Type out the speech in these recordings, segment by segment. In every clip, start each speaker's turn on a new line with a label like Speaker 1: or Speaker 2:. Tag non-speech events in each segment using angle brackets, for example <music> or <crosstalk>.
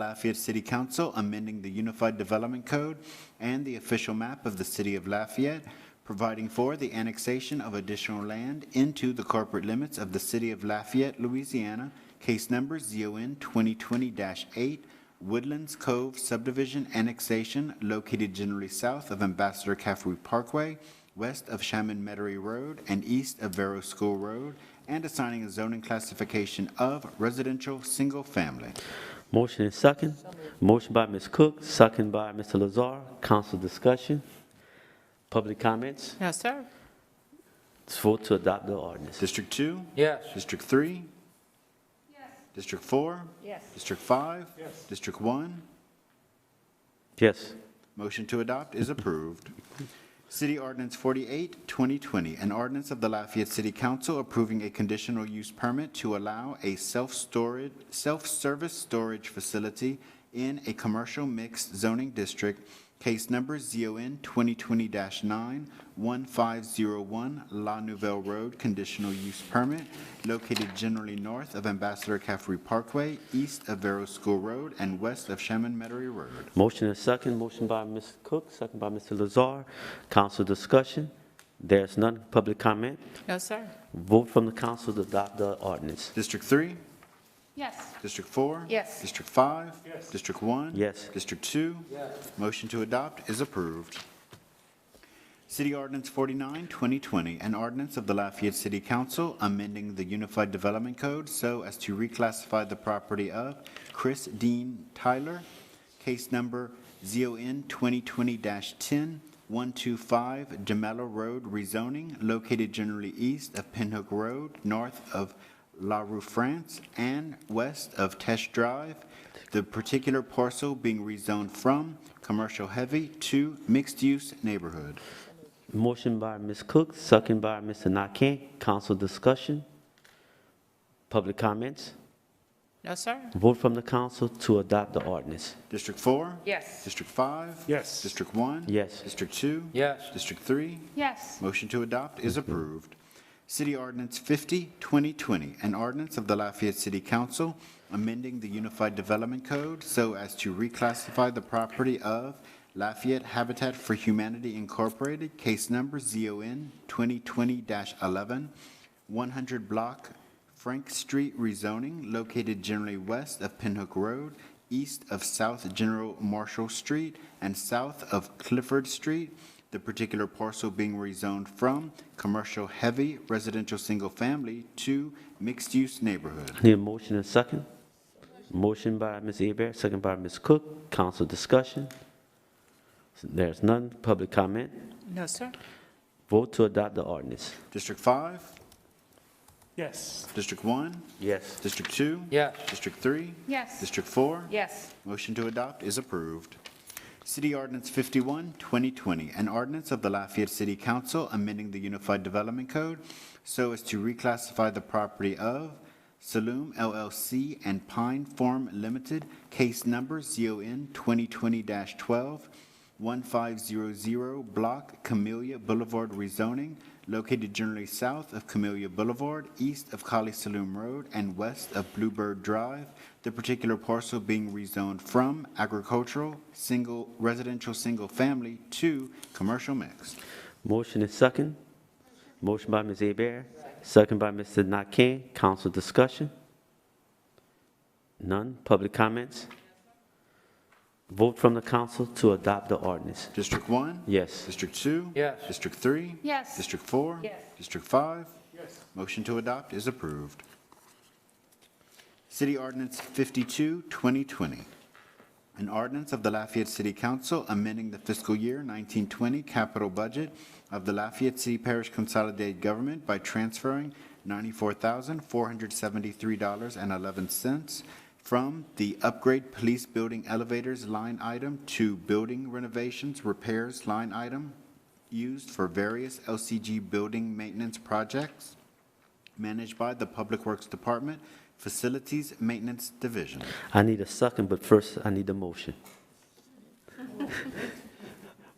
Speaker 1: Lafayette City Council amending the Unified Development Code and the official map of the city of Lafayette, providing for the annexation of additional land into the corporate limits of the city of Lafayette, Louisiana, case number ZON 2020-8, Woodlands Cove subdivision annexation located generally south of Ambassador Caffrey Parkway, west of Shaman Metairie Road and east of Vero School Road, and assigning a zoning classification of residential single-family.
Speaker 2: Motion and second. Motion by Ms. Cook, second by Mr. Lazar. Council discussion. Public comments.
Speaker 3: No, sir.
Speaker 2: It's vote to adopt the ordinance.
Speaker 1: District two?
Speaker 4: Yes.
Speaker 1: District three? Yes. District four?
Speaker 3: Yes.
Speaker 1: District five? Yes. District one?
Speaker 2: Yes.
Speaker 1: Motion to adopt is approved. City Ordinance 48, 2020, an ordinance of the Lafayette City Council approving a conditional use permit to allow a self-storage, self-service storage facility in a commercial mixed zoning district, case number ZON 2020-9, 1501 La Nouvelle Road, conditional use permit, located generally north of Ambassador Caffrey Parkway, east of Vero School Road, and west of Shaman Metairie Road.
Speaker 2: Motion and second. Motion by Ms. Cook, second by Mr. Lazar. Council discussion. There's none. Public comment.
Speaker 3: No, sir.
Speaker 2: Vote from the council to adopt the ordinance.
Speaker 1: District 3?
Speaker 3: Yes.
Speaker 1: District 4?
Speaker 3: Yes.
Speaker 1: District 5? Yes. District 1?
Speaker 2: Yes.
Speaker 1: District 2? Yes. Motion to adopt is approved. City Ordinance 49, 2020, an ordinance of the Lafayette City Council amending the Unified Development Code so as to reclassify the property of Chris Dean Tyler, case number ZON 2020-10, 125 Jamela Road rezoning, located generally east of Pinhook Road, north of La Rue France, and west of Tesh Drive, the particular parcel being rezoned from commercial heavy to mixed-use neighborhood.
Speaker 2: Motion by Ms. Cook, second by Mr. Nakane. Council discussion. Public comments.
Speaker 3: No, sir.
Speaker 2: Vote from the council to adopt the ordinance.
Speaker 1: District four?
Speaker 3: Yes.
Speaker 1: District five? Yes. District one?
Speaker 2: Yes.
Speaker 1: District two?
Speaker 4: Yes.
Speaker 1: District three?
Speaker 3: Yes.
Speaker 1: Motion to adopt is approved. City Ordinance 50, 2020, an ordinance of the Lafayette City Council amending the Unified Development Code so as to reclassify the property of Lafayette Habitat for Humanity Incorporated, case number ZON 2020-11, 100 block Frank Street rezoning located generally west of Pinhook Road, east of South General Marshall Street, and south of Clifford Street, the particular parcel being rezoned from commercial heavy residential single family to mixed-use neighborhood.
Speaker 2: Need a motion and second? Motion by Ms. Abear, second by Ms. Cook. Council discussion. There's none. Public comment.
Speaker 3: No, sir.
Speaker 2: Vote to adopt the ordinance.
Speaker 1: District five,
Speaker 5: Yes.
Speaker 1: District one,
Speaker 2: Yes.
Speaker 1: District two?
Speaker 4: Yes.
Speaker 1: District three?
Speaker 3: Yes.
Speaker 1: District four?
Speaker 3: Yes.
Speaker 1: Motion to adopt is approved. City Ordinance 51, 2020, an ordinance of the Lafayette City Council amending the Unified Development Code so as to reclassify the property of Saloom LLC and Pine Farm Limited, case number ZON 2020-12, 1500 Block Camellia Boulevard rezoning, located generally south of Camellia Boulevard, east of Kali Saloom Road, and west of Bluebird Drive, the particular parcel being rezoned from agricultural, single, residential, single-family to commercial mixed.
Speaker 2: Motion and second. Motion by Ms. Abear, second by Mr. Nakane. Council discussion. None. Public comments. Vote from the council to adopt the ordinance.
Speaker 1: District one?
Speaker 2: Yes.
Speaker 1: District two?
Speaker 4: Yes.
Speaker 1: District three?
Speaker 3: Yes.
Speaker 1: District four?
Speaker 3: Yes.
Speaker 1: District five? Yes. Motion to adopt is approved. City Ordinance 52, 2020, an ordinance of the Lafayette City Council amending the fiscal year 1920 capital budget of the Lafayette City Parish Consolidated Government by transferring $94,473.11 from the upgrade police building elevators line item to building renovations repairs line item used for various LCG building maintenance projects managed by the Public Works Department Facilities Maintenance Division.
Speaker 2: I need a second, but first I need a motion. <laughs>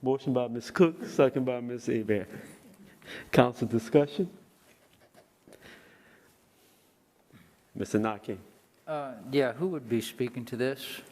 Speaker 2: Motion by Ms. Cook, second by Ms. Abear. Council discussion? Mr. Nakane?
Speaker 4: Uh, Yeah, who would be speaking to this?